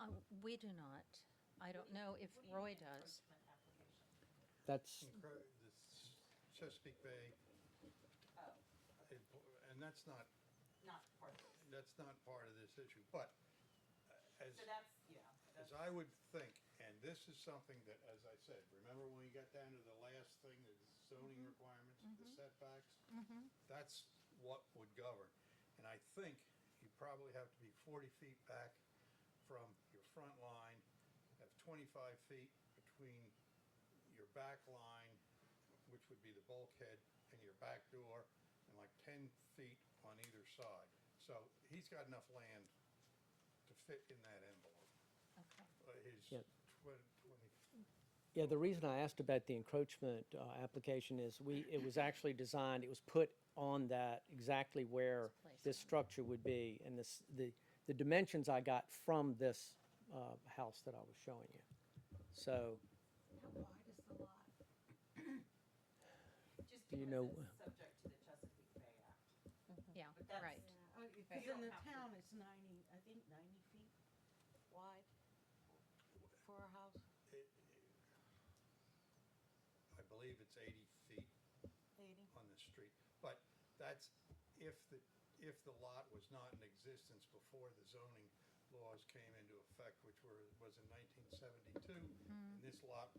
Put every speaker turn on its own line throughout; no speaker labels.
Uh, We do not. I don't know if Roy does.
That's,
Cro- this Chesapeake Bay, it- and that's not,
Oh, Not part of this.
that's not part of this issue, but uh, as,
So that's, yeah.
as I would think, and this is something that, as I said, remember when we got down to the last thing, the zoning requirements, the setbacks?
Mm-hmm.
That's what would govern, and I think you probably have to be forty feet back from your front line, have twenty-five feet between your back line, which would be the bulkhead, and your back door, and like ten feet on either side. So he's got enough land to fit in that envelope,
Okay.
uh, his
Yep.
twen- twenty,
yeah, the reason I asked about the encroachment uh, application is we, it was actually designed, it was put on that exactly where
placed
this
on.
structure would be. And this, the, the dimensions I got from this uh, house that I was showing you. So,
How wide is the lot? Just
Do you
because
know-
it's subject to the Chesapeake Bay Act.
Yeah,
But that's-
right.
Yeah, oh, Because
You
in
don't
the
have to-
town, it's ninety, I think ninety feet wide for a house,
I believe it's eighty feet
eighty.
on the street. But that's if the, if the lot was not in existence before the zoning laws came into effect, which were, was in nineteen seventy-two,
Mm-hmm.
and this lot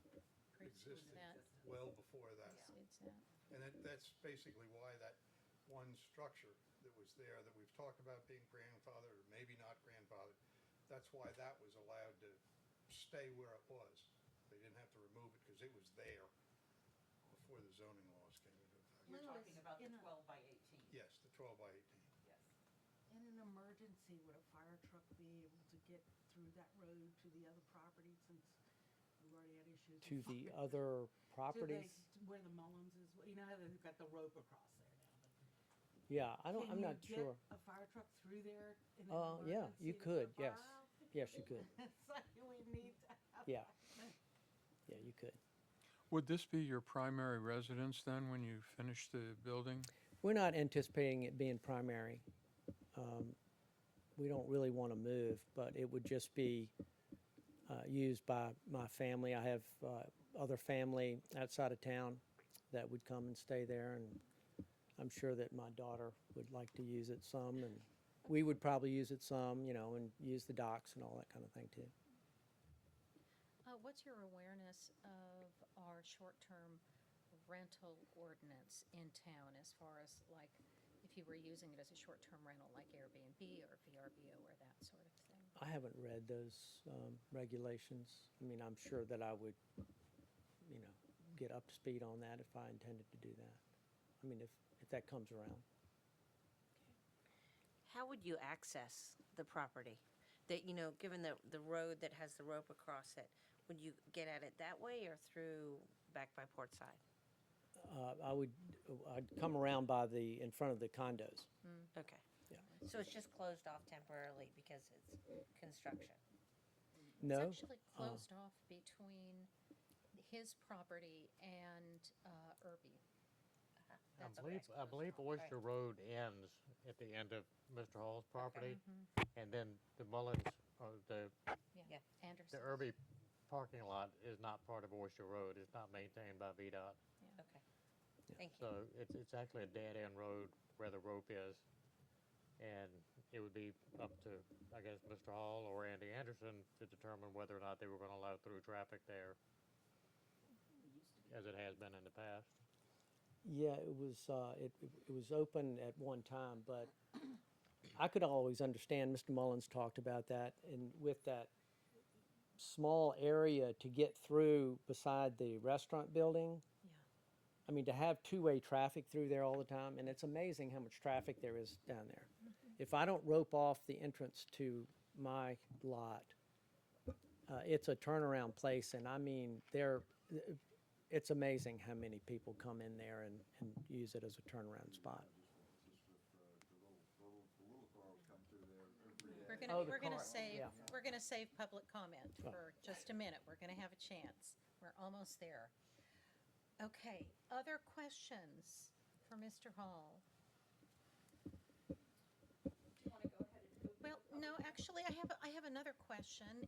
existed
that.
well before that.
Exceeds that.
And that, that's basically why that one structure that was there that we've talked about being grandfathered, or maybe not grandfathered, that's why that was allowed to stay where it was. They didn't have to remove it because it was there before the zoning laws came into effect.
You're
Lou,
talking
it's
about the
in a-
twelve by eighteen.
Yes, the twelve by eighteen.
Yes.
In an emergency, would a fire truck be able to get through that road to the other property since we've already had issues? with
to the
fire?
other
To the-
properties?
Where the Mullins is, you know how they've got the rope across there now?
Yeah, I don't, I'm
Can you
not
get
sure.
A fire truck through there in an
Uh,
emergency?
yeah, you
to
could,
fire
yes.
out?
Yes, you could.
It's like we need to have.
Yeah. Yeah, you could.
Would this be your primary residence then, when you finish the building?
We're not anticipating it being primary. Um, We don't really want to move, but it would just be uh, used by my family. I have uh, other family outside of town that would come and stay there, and I'm sure that my daughter would like to use it some, and we would probably use it some, you know, and use the docks and all that kind of thing too.
Uh, what's your awareness of our short-term rental ordinance in town as far as like, if you were using it as a short-term rental, like Airbnb or VRBO or that sort of thing?
I haven't read those um, regulations. I mean, I'm sure that I would, you know, get up to speed on that if I intended to do that. I mean, if, if that comes around.
How would you access the property? That, you know, given the, the road that has the rope across it, would you get at it that way or through back by port side?
Uh, I would, I'd come around by the, in front of the condos.
Okay.
Yeah.
So it's just closed off temporarily because it's construction?
No?
It's actually closed off between his property and uh, Irby.
I
That's
believe,
what's
I believe
off, right.
Oyster Road ends at the end of Mr. Hall's property,
Mm-hmm.
and then the Mullins, uh, the,
Yeah,
Yeah.
Anderson.
the Irby parking lot is not part of Oyster Road, it's not maintained by VDOT.
Yeah.
Okay. Thank you.
So it's, it's actually a dead-end road where the rope is, and it would be up to, I guess, Mr. Hall or Andy Anderson to determine whether or not they were gonna allow through traffic there, as it has been in the past.
Yeah, it was, uh, it, it was open at one time, but I could always understand, Mr. Mullins talked about that, and with that small area to get through beside the restaurant building,
Yeah.
I mean, to have two-way traffic through there all the time, and it's amazing how much traffic there is down there. If I don't rope off the entrance to my lot, uh, it's a turnaround place, and I mean, there, it's amazing how many people come in there and, and use it as a turnaround spot.
We're gonna,
Oh, the
we're gonna
car,
save,
yeah.
we're gonna save public comment
Oh.
for just a minute. We're gonna have a chance. We're almost there. Okay, other questions for Mr. Hall? Well, no, actually, I have, I have another question,